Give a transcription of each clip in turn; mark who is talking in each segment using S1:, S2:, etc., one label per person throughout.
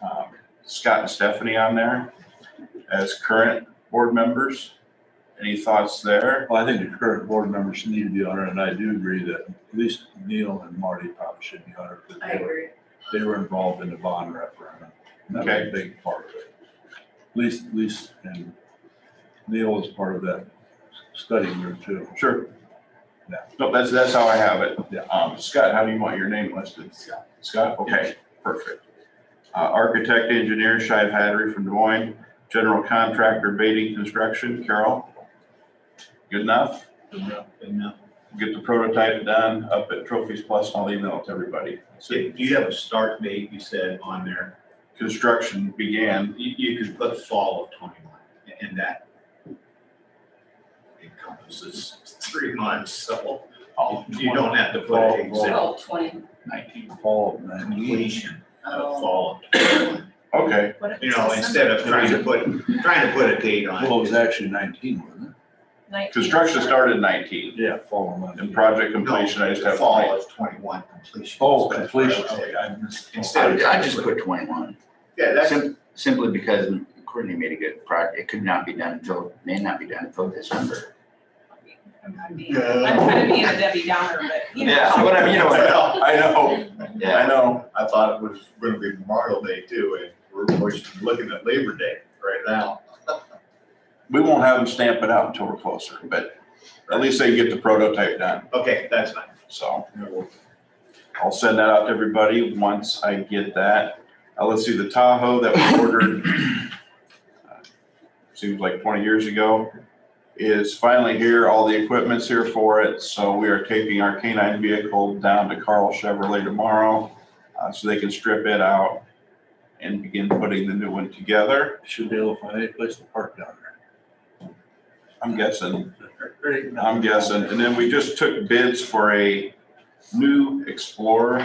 S1: Um, Scott and Stephanie on there as current board members. Any thoughts there?
S2: Well, I think the current board members need to be on it, and I do agree that at least Neil and Marty probably should be on it. because
S3: I
S2: they were-
S3: agree.
S2: They were involved in the bond referendum. and That was a big part of it. At least, at least, and Neil was part of that study group too.
S1: Sure.
S2: Yeah.
S1: No, that's, that's how I have it.
S2: Yeah.
S1: Um, Scott, how do you want your name listed?
S3: Scott.
S1: Scott, okay, perfect. Uh, architect, engineer, Shive Hattery from Des Moines, general contractor, Beatty Construction, Carol. Good enough? Get the prototype done up at Trophies Plus, and I'll email it to everybody.
S4: So do you have a start date, you said, on there?
S1: Construction began,
S4: You, you could put fall of twenty-one, and that encompasses three months, so you don't have to put
S2: Fall,
S4: an
S2: fall.
S4: exact
S3: Twelve twenty, um,
S2: Fall of nineteen.
S4: completion of
S3: oh,
S4: fall of twenty-one.
S1: okay,
S4: You know, instead of trying to put, trying to put a date on
S2: Well, it was
S4: it.
S2: actually nineteen, wasn't
S3: nineteen.
S1: construction started nineteen,
S2: it? Yeah, fall of
S1: and
S2: nineteen.
S1: project completion, I just have.
S4: Fall of twenty-one completion.
S2: Oh,
S4: That's what I
S2: completion,
S4: would say.
S2: okay, I missed.
S4: Instead of.
S5: I I just put twenty-one,
S4: Yeah, that's,
S5: sim- simply because Courtney made a good product, it could not be done until, may not be done until December.
S3: I'm kind of being I'm kind of being a Debbie Downer, but you know.
S5: Yeah, but I mean, you know what?
S4: well,
S1: I know, I
S5: Yeah,
S1: know,
S4: I thought it was gonna be Memorial Day too, and we're, we're looking at Labor Day right now.
S1: we won't have them stamp it out until we're closer, but at least they get the prototype done,
S4: Okay, that's fine.
S1: so. I'll send that out to everybody once I get that. Uh, let's see, the Tahoe that we ordered, uh, seems like twenty years ago, is finally here. All the equipment's here for it. So we are taking our canine vehicle down to Carl Chevrolet tomorrow, uh, so they can strip it out and begin putting the new one together.
S2: Should be able to find any place to park down
S1: I'm guessing,
S2: there. Um,
S1: I'm guessing. And then we just took bids for a new Explorer.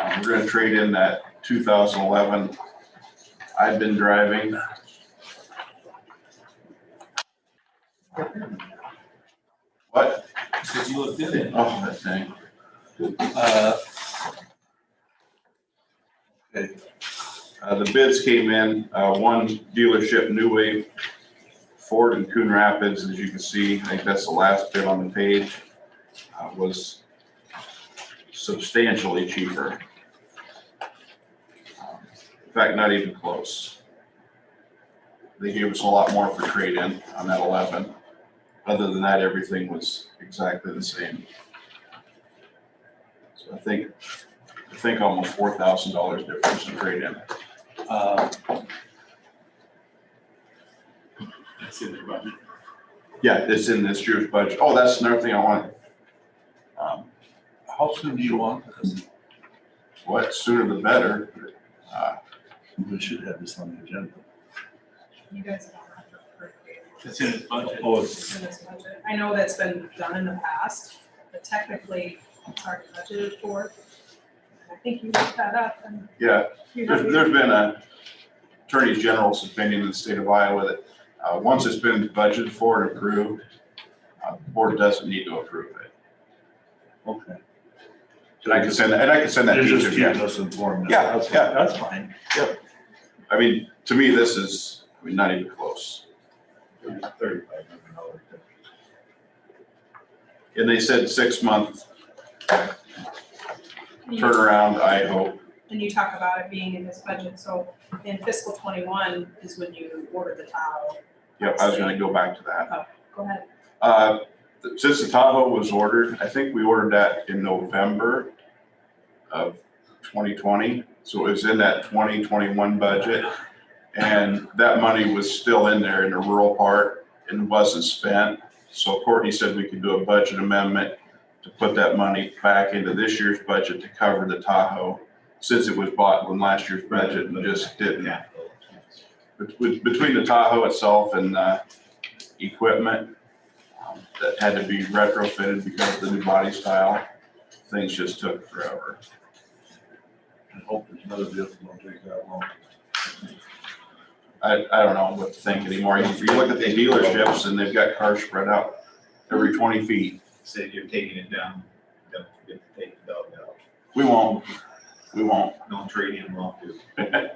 S1: Um, We're gonna trade in that 2011 I've been driving. What?
S2: Did you look in it?
S1: Oh, that thing.
S2: Uh, Okay,
S1: Uh, The bids came in, uh, one dealership, New Wave Ford in Coon Rapids, as you can see, I think that's the last bid on the page, uh, was substantially cheaper. In fact, not even close. They gave us a lot more for trade-in on that 11. Other than that, everything was exactly the same. So I think, I think almost $4,000 difference in trade-in.
S2: uh,
S1: Yeah, it's in this year's budget. Oh, that's another thing I want. Um,
S2: How soon do you want this?
S1: What, sooner the better. Uh,
S2: We should have this on the agenda.
S3: You guys don't have to appropriate
S2: It's in his budget. Oh, it's,
S3: in this budget. I know that's been done in the past, but technically it's already budgeted for. I think you looked that up and
S1: Yeah,
S3: you
S1: there's,
S3: have.
S1: there's been a attorney general's opinion in the state of Iowa that, uh, once it's been budgeted for and approved, uh, the board doesn't need to approve it.
S2: okay.
S1: And I can send, that- and I can send that
S2: They're
S1: to
S2: just
S1: you.
S2: keeping
S1: yeah.
S2: us informed.
S1: Yeah,
S2: That's-
S1: yeah.
S2: That's fine.
S1: I mean, to me, this is, I mean, not even close.
S4: Thirty-five hundred dollars.
S1: And they said six month
S3: And you-
S1: turnaround, I hope.
S3: And you talk about it being in this budget, so in fiscal twenty-one is when you order the tile.
S1: Yep, I was gonna go back to that.
S3: Go ahead.
S1: Uh, Since the Tahoe was ordered, I think we ordered that in November of 2020. So it was in that 2021 budget. And that money was still in there in the rural part and wasn't spent. So Courtney said we could do a budget amendment to put that money back into this year's budget to cover the Tahoe, since it was bought in last year's budget and just didn't. Bet- bet- Between the Tahoe itself and uh, equipment um, that had to be retrofitted because of the new body style, things just took forever.
S2: I hope there's another vehicle don't take that long.
S1: I, I don't know what to think anymore. If you look at the dealerships and they've got cars spread out every 20 feet,
S4: Said you're taking it down, don't forget to take the dog out.
S1: we won't, we won't.
S4: Don't trade him off, dude.